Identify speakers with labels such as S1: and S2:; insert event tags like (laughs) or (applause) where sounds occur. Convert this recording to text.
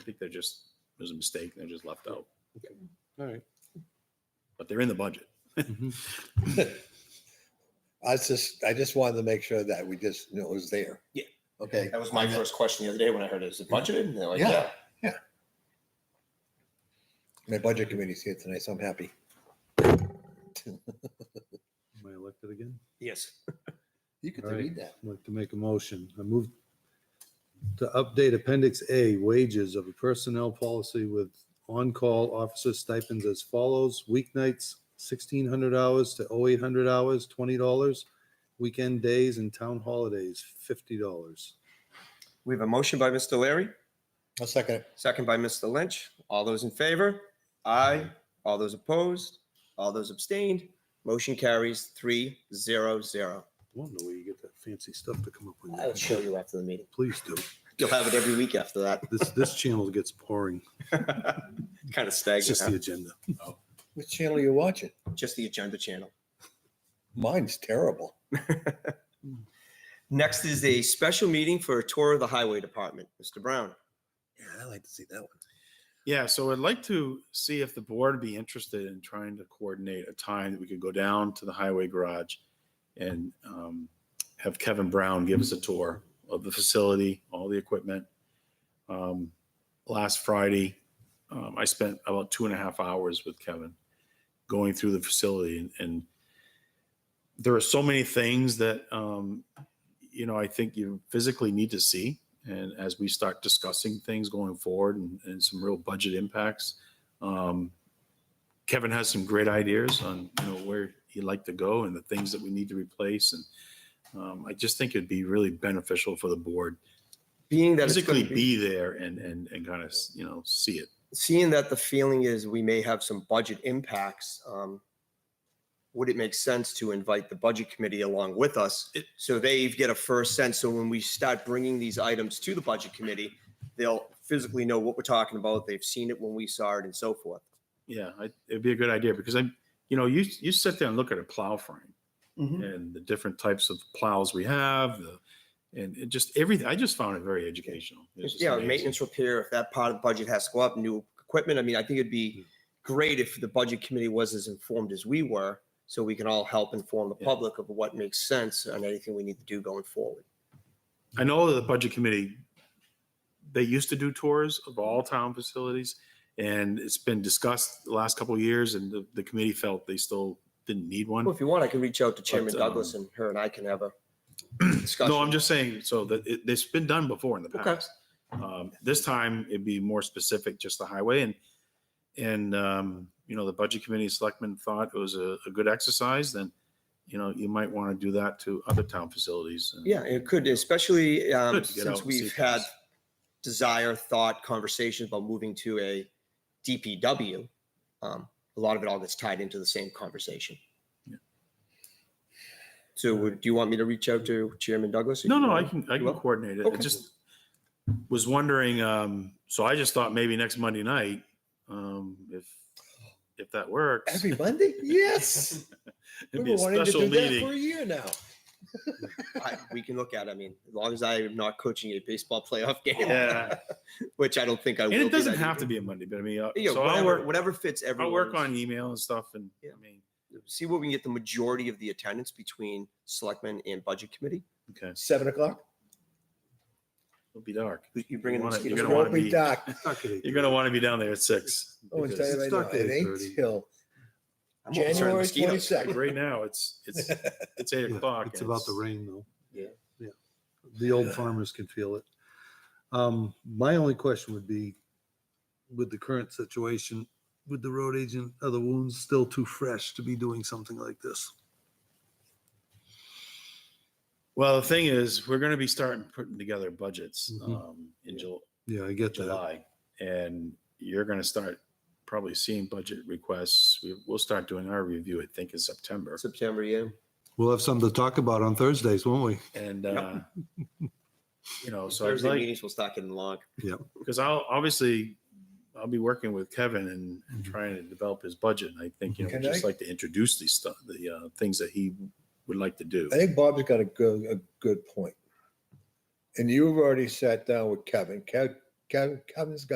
S1: think they're just, it was a mistake. They're just left out,
S2: All right.
S1: but they're in the budget.
S3: I was just, I just wanted to make sure that we just knew it was there.
S4: Yeah.
S3: Okay.
S4: That was my first question the other day when I heard it. Is it budgeted? And they're like,
S3: Yeah.
S4: yeah.
S3: My budget committee's here tonight, so I'm happy.
S2: Am I elected again?
S4: Yes.
S3: You could
S2: All right.
S3: read that.
S2: I'd like to make a motion. I move to update Appendix A wages of a personnel policy with on-call officer stipends as follows. Weeknights, sixteen hundred hours to oh eight hundred hours, twenty dollars. Weekend days and town holidays, fifty dollars.
S5: We have a motion by Mr. Larry,
S3: I'll second it.
S5: second by Mr. Lynch. All those in favor? Aye. All those opposed? All those abstained? Motion carries three zero zero.
S2: Wonder where you get that fancy stuff to come up with.
S4: I'll show you after the meeting.
S2: Please do.
S5: You'll have it every week after that.
S2: This, this channel gets boring.
S5: Kind of
S2: It's just the
S5: stagnant.
S2: agenda.
S3: Which channel are you watching?
S5: huh? Just the agenda channel.
S3: Mine's terrible.
S5: Next is a special meeting for a tour of the highway department. Mr. Brown.
S3: Yeah, I like to see that one.
S1: Yeah, so I'd like to see if the board would be interested in trying to coordinate a time that we could go down to the highway garage and um, have Kevin Brown give us a tour of the facility, all the equipment. Um, Last Friday, um, I spent about two and a half hours with Kevin going through the facility and, and there are so many things that, um, you know, I think you physically need to see. And as we start discussing things going forward and, and some real budget impacts, um, Kevin has some great ideas on, you know, where he'd like to go and the things that we need to replace. And um, I just think it'd be really beneficial for the board
S5: Being that it's gonna
S1: physically be there and, and, and kind of, you know, see it.
S5: seeing that the feeling is we may have some budget impacts, um, would it make sense to invite the budget committee along with us?
S1: It-
S5: So they get a first sense. So when we start bringing these items to the budget committee, they'll physically know what we're talking about. They've seen it when we saw it and so forth.
S1: Yeah, I, it'd be a good idea because I'm, you know, you, you sit there and look at a plow frame
S5: Mm-hmm.
S1: and the different types of plows we have, the, and it just everything. I just found it very educational. It was just
S5: Yeah,
S1: amazing.
S5: maintenance repair, if that part of the budget has to go up, new equipment. I mean, I think it'd
S1: Hmm.
S5: be great if the budget committee was as informed as we were. So we can all help inform the
S1: Yeah.
S5: public of what makes sense and anything we need to do going forward.
S1: I know the budget committee, they used to do tours of all town facilities, and it's been discussed the last couple of years, and the, the committee felt they still didn't need one.
S5: Well, Oh, if you want, I can reach out to Chairman
S1: um,
S5: Douglas and her and I can
S1: (clears throat)
S5: have a discussion.
S1: No, I'm just saying, so that it, it's been done before in the
S5: Okay.
S1: past. Um, this time it'd be more specific, just the highway and, and, um, you know, the budget committee and selectmen thought it was a, a good exercise, then, you know, you might want to do that to other town facilities. and-
S5: Yeah, it could, especially um,
S1: Good to get out
S5: since
S1: and see
S5: we've had
S1: things.
S5: desire, thought, conversations about moving to a DPW. um, A lot of it all gets tied into the same conversation.
S1: Yeah.
S5: So would, do you want me to reach out to Chairman Douglas?
S1: No, no, I can, I
S5: You
S1: can
S5: will?
S1: coordinate it. I
S5: Okay.
S1: just was wondering, um, so I just thought maybe next Monday night, um, if, if that works.
S3: Every Monday? Yes.
S1: It'd be
S3: We've
S1: a
S3: been wanting to
S1: special
S3: do that for a
S1: meeting.
S3: year now.
S5: I- We can look at, it. I mean, as long as I am not coaching a baseball playoff (laughs) game,
S1: Yeah,
S5: which I don't think I will.
S1: and it
S5: be
S1: doesn't
S5: that
S1: have to
S5: evening.
S1: be a Monday, but I mean, uh,
S5: Yeah,
S1: so I'll
S5: whatever,
S1: work,
S5: whatever fits everyone.
S1: I'll work on email and stuff and,
S5: Yeah.
S1: I mean,
S5: see what we can get the majority of the attendance between selectmen and budget committee.
S1: okay,
S3: Seven o'clock?
S1: it'll be dark.
S5: You
S1: bringing
S5: bringing
S1: the
S5: in
S1: mosquitoes? You're
S5: mosquitoes?
S3: It
S1: gonna wanna
S3: won't be
S1: be-
S3: dark.
S1: You're gonna want to be down there at six.
S3: Oh, and tell
S1: because-
S3: you right
S2: It's
S3: now,
S2: not
S3: it
S2: day
S3: ain't
S2: 30.
S3: till
S5: I'm more concerned
S3: January
S5: with
S1: Like
S5: mosquitoes.
S3: twenty-second.
S1: right now, it's, it's, it's eight
S2: Yeah,
S1: o'clock.
S2: It's
S1: and
S2: about the rain though.
S5: Yeah.
S2: Yeah. The old farmers can feel it. Um, my only question would be with the current situation, with the road agent, are the wounds still too fresh to be doing something like this?
S1: Well, the thing is, we're gonna be starting putting together budgets,
S2: Mhm.
S1: um, in
S2: Yeah.
S1: July.
S2: Yeah, I get that.
S1: July, and you're going to start probably seeing budget requests. We, we'll start doing our review, I think, in September.
S5: September, yeah.
S2: We'll have something to talk about on Thursdays, won't we?
S1: And,
S5: Yep.
S1: uh, you know, so I was
S5: Thursday
S1: like,
S5: meetings will start getting long.
S1: because I'll obviously, I'll be working with Kevin and, and trying to develop his budget. And I think, you know,
S3: Can
S1: just
S3: I-
S1: like to introduce these stuff, the, uh, things that he would like to do.
S3: I think Bob's got a good, a good point. And you've already sat down with Kevin. Kev- Kevin, Kevin's got